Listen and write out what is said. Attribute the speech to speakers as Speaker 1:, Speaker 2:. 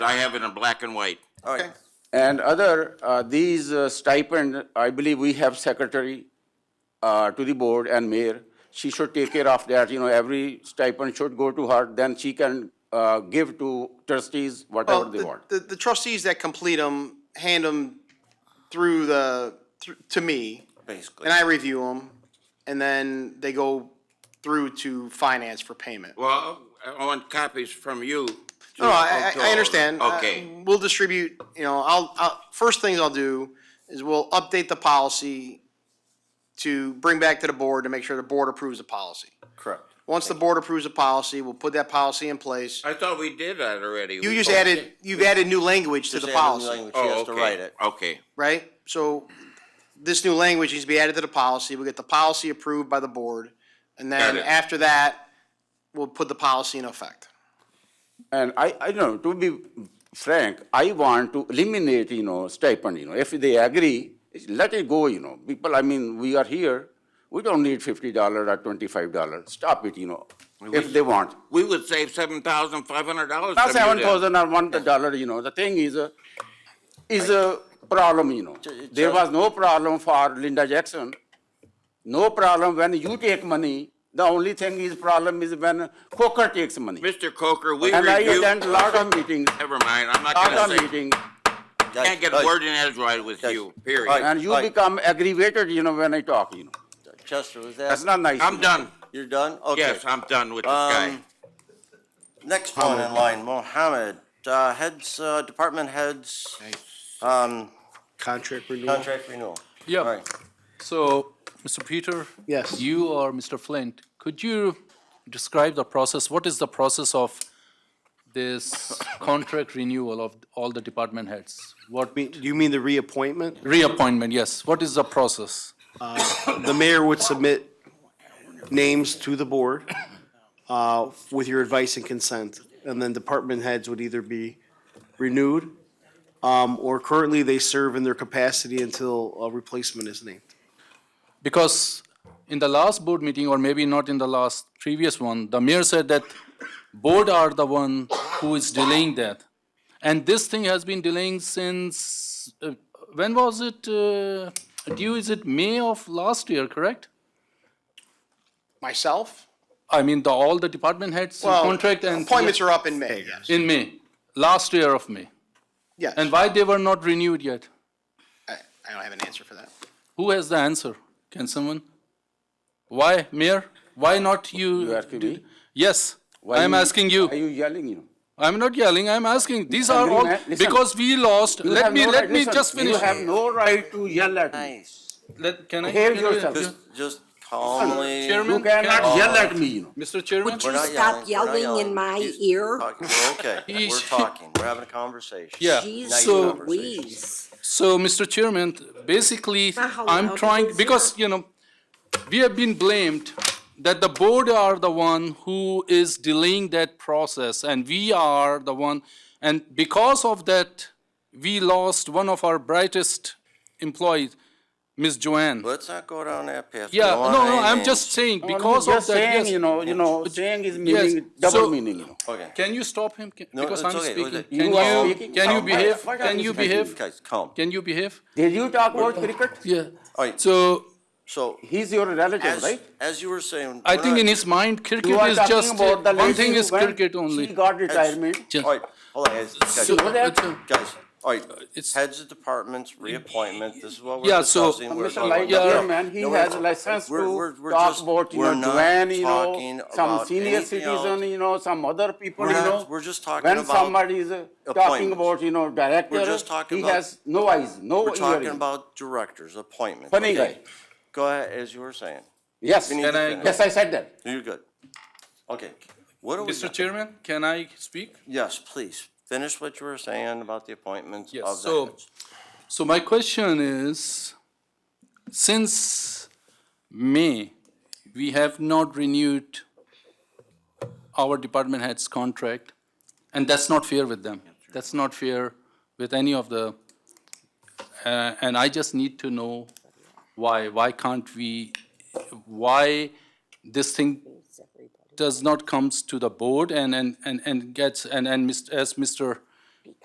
Speaker 1: I have it in black and white.
Speaker 2: All right.
Speaker 3: Okay.
Speaker 2: And other, uh, these uh, stipend, I believe we have secretary uh, to the board and mayor. She should take care of that, you know, every stipend should go to her, then she can uh, give to trustees
Speaker 3: Well,
Speaker 2: whatever they
Speaker 3: the-
Speaker 2: want.
Speaker 3: The, the trustees that complete them, hand them through the, thr- to me.
Speaker 1: Basically.
Speaker 3: And I review them, and then they go through to finance for payment.
Speaker 1: Well, I want copies from you. to-
Speaker 3: No, I,
Speaker 1: to all
Speaker 3: I, I
Speaker 1: of
Speaker 3: understand.
Speaker 1: them. Okay,
Speaker 3: Uh, We'll distribute, you know, I'll, I'll, first things I'll do is we'll update the policy to bring back to the board to make sure the board approves the policy.
Speaker 2: Correct.
Speaker 3: Once the board approves the policy, we'll put that policy in place.
Speaker 1: I thought we did that already.
Speaker 3: Uh, You
Speaker 1: We
Speaker 3: just
Speaker 1: voted.
Speaker 3: added, you've added new language to the policy.
Speaker 1: Oh,
Speaker 4: She has to
Speaker 1: okay,
Speaker 4: write it.
Speaker 1: Okay,
Speaker 3: right? So this new language needs to be added to the policy. We'll get the policy approved by the board. And
Speaker 1: Got
Speaker 3: then
Speaker 1: it.
Speaker 3: after that, we'll put the policy in effect.
Speaker 2: And I, I don't know, to be frank, I want to eliminate, you know, stipend, you know, if they agree, let it go, you know, people, I mean, we are here, we don't need fifty dollar or twenty-five dollar, stop it, you know, if they want.
Speaker 1: we would save seven thousand five hundred dollars.
Speaker 2: Not seven thousand or one dollar, you know, the thing is, uh, is a problem, you know. There was no problem for Linda Jackson. No problem when you take money, the only thing is problem is when Coker takes money.
Speaker 1: Mr. Coker, we
Speaker 2: And I
Speaker 1: reviewed,
Speaker 2: attend lot of meetings,
Speaker 1: never mind, I'm not
Speaker 2: lot
Speaker 1: gonna
Speaker 2: of
Speaker 1: say,
Speaker 2: meetings,
Speaker 1: can't get a
Speaker 4: Judge,
Speaker 1: word in edgewise with
Speaker 4: Yes.
Speaker 1: you,
Speaker 4: Right.
Speaker 1: period.
Speaker 2: and you
Speaker 4: Right.
Speaker 2: become aggravated, you know, when I talk, you know.
Speaker 4: Judge, Chester, was
Speaker 2: That's
Speaker 4: that,
Speaker 2: not nice. you
Speaker 1: I'm
Speaker 2: know.
Speaker 1: done,
Speaker 4: you're done? Okay.
Speaker 1: yes, I'm done with this guy.
Speaker 4: Um, Next one in line, Mohammed, uh, heads, uh, department heads, um,
Speaker 3: Contract renewal.
Speaker 4: contract renewal. All
Speaker 5: Yeah,
Speaker 4: right.
Speaker 5: so, Mr. Peter?
Speaker 3: Yes.
Speaker 5: You or Mr. Flint, could you describe the process? What is the process of this contract renewal of all the department heads? What,
Speaker 6: mean- Do you mean the reappointment?
Speaker 5: reappointment, yes, what is the process?
Speaker 6: The mayor would submit names to the board uh, with your advice and consent, and then department heads would either be renewed um, or currently they serve in their capacity until a replacement is named.
Speaker 5: Because in the last board meeting, or maybe not in the last, previous one, the mayor said that board are the one who is delaying that. And this thing has been delaying since, uh, when was it uh, due? Is it May of last year, correct?
Speaker 3: Myself?
Speaker 5: I mean, the, all the department heads
Speaker 3: Well,
Speaker 5: contract and.
Speaker 3: Appointments are up in May, yes.
Speaker 5: In May, last year of May.
Speaker 3: Yes.
Speaker 5: And why they were not renewed yet?
Speaker 3: I I don't have an answer for that.
Speaker 5: Who has the answer? Can someone? Why, Mayor? Why not you?
Speaker 2: You asking me?
Speaker 5: Yes,
Speaker 2: Why
Speaker 5: I'm
Speaker 2: you-
Speaker 5: asking you.
Speaker 2: Are you yelling, you know?
Speaker 5: I'm not yelling, I'm asking. These are
Speaker 2: Listen,
Speaker 5: all,
Speaker 2: man, listen.
Speaker 5: because we lost,
Speaker 2: You
Speaker 5: let
Speaker 2: have
Speaker 5: me,
Speaker 2: no
Speaker 5: let
Speaker 2: right-
Speaker 5: me
Speaker 2: listen,
Speaker 5: just finish.
Speaker 2: You have no right to yell at me.
Speaker 4: Nice.
Speaker 5: Let, can I?
Speaker 2: Behave
Speaker 5: can I-
Speaker 2: yourself.
Speaker 4: Just, just calmly.
Speaker 5: Chairman?
Speaker 2: You cannot
Speaker 1: Oh.
Speaker 5: can-
Speaker 2: yell at me, you know.
Speaker 5: Mr. Chairman?
Speaker 4: We're
Speaker 7: you
Speaker 4: not
Speaker 7: stop
Speaker 4: we're not
Speaker 7: yelling in my
Speaker 4: He's
Speaker 7: ear?
Speaker 4: talking- We're okay, we're
Speaker 5: He's-
Speaker 4: talking, we're having a conversation.
Speaker 5: Yeah.
Speaker 7: Jeez
Speaker 5: So-
Speaker 7: Louise.
Speaker 5: So, Mr. Chairman, basically,
Speaker 7: Not how loud
Speaker 5: I'm
Speaker 7: it
Speaker 5: trying,
Speaker 7: is
Speaker 5: because, you know, we have been blamed that the board are the one who is delaying that process, and we are the one, and because of that, we lost one of our brightest employees, Ms. Joanne.
Speaker 4: Let's not go down that path. We
Speaker 5: Yeah,
Speaker 4: don't want
Speaker 5: no, no,
Speaker 4: any
Speaker 5: I'm
Speaker 4: names.
Speaker 5: just saying,
Speaker 2: Only
Speaker 5: because of
Speaker 2: just
Speaker 5: that,
Speaker 2: saying,
Speaker 5: yes.
Speaker 2: You know, you know, saying is meaning,
Speaker 5: so-
Speaker 2: double meaning, you know.
Speaker 4: Okay.
Speaker 5: Can you stop him? Can-
Speaker 4: No,
Speaker 5: Because
Speaker 4: it's
Speaker 5: I'm
Speaker 4: okay,
Speaker 5: speaking.
Speaker 4: okay.
Speaker 2: You
Speaker 5: Can
Speaker 2: are
Speaker 5: you,
Speaker 2: speaking.
Speaker 5: can you
Speaker 2: Why-
Speaker 5: behave?
Speaker 2: why
Speaker 5: Can
Speaker 2: don't
Speaker 5: you
Speaker 2: you
Speaker 5: behave?
Speaker 4: Guys, calm.
Speaker 5: Can you behave?
Speaker 2: Did you talk about
Speaker 4: uh,
Speaker 2: cricket?
Speaker 5: Yeah.
Speaker 4: All right,
Speaker 5: So,
Speaker 4: so,
Speaker 2: He's your relative,
Speaker 4: as,
Speaker 2: right?
Speaker 4: as you were saying.
Speaker 5: I
Speaker 4: we're
Speaker 5: think
Speaker 4: not-
Speaker 5: in his mind, cricket
Speaker 2: You are
Speaker 5: is just,
Speaker 2: talking about the
Speaker 5: one
Speaker 2: lady
Speaker 5: thing
Speaker 2: who
Speaker 5: is
Speaker 2: went-
Speaker 5: cricket
Speaker 2: She
Speaker 5: only.
Speaker 2: got retirement.
Speaker 5: Just-
Speaker 4: All right, hold on, guys, guys.
Speaker 5: So-
Speaker 2: What Uh, happened?
Speaker 4: Guys, all right,
Speaker 5: It's-
Speaker 4: heads of departments, reappointment, this is what we're
Speaker 5: Yeah, so-
Speaker 4: discussing. We're
Speaker 2: Mr.
Speaker 4: talking
Speaker 2: Light,
Speaker 4: about-
Speaker 5: yeah,
Speaker 2: yeah, man, he
Speaker 4: No, we're-
Speaker 2: has license
Speaker 4: we're- we're-
Speaker 2: to
Speaker 4: we're
Speaker 2: talk
Speaker 4: just-
Speaker 2: about, you
Speaker 4: we're
Speaker 2: know,
Speaker 4: not
Speaker 2: Joanne, you
Speaker 4: talking
Speaker 2: know, some
Speaker 4: about
Speaker 2: senior
Speaker 4: anything else.
Speaker 2: citizen, you know, some other people,
Speaker 4: We're
Speaker 2: you
Speaker 4: not-
Speaker 2: know.
Speaker 4: we're just talking about
Speaker 2: When somebody is uh, talking
Speaker 4: appointments.
Speaker 2: about, you know, director,
Speaker 4: just talking
Speaker 2: he
Speaker 4: about-
Speaker 2: has no eyes, no
Speaker 4: We're talking
Speaker 2: ears.
Speaker 4: about directors, appointments.
Speaker 2: Funny
Speaker 4: okay?
Speaker 2: guy.
Speaker 4: Go ahead, as you were saying.
Speaker 2: Yes,
Speaker 4: We need to
Speaker 5: Can I-
Speaker 4: finish.
Speaker 2: yes, I said that.
Speaker 4: You're good. Okay, what do we
Speaker 5: Mr.
Speaker 4: got?
Speaker 5: Chairman, can I speak?
Speaker 4: Yes, please, finish what you were saying about the appointments
Speaker 5: Yes,
Speaker 4: of the
Speaker 5: so-
Speaker 4: heads.
Speaker 5: So my question is, since May, we have not renewed our department head's contract, and that's not fair with them. That's not fair with any of the, uh, and I just need to know why, why can't we, why this thing does not comes to the board and, and, and, and gets, and, and Mr. as Mr.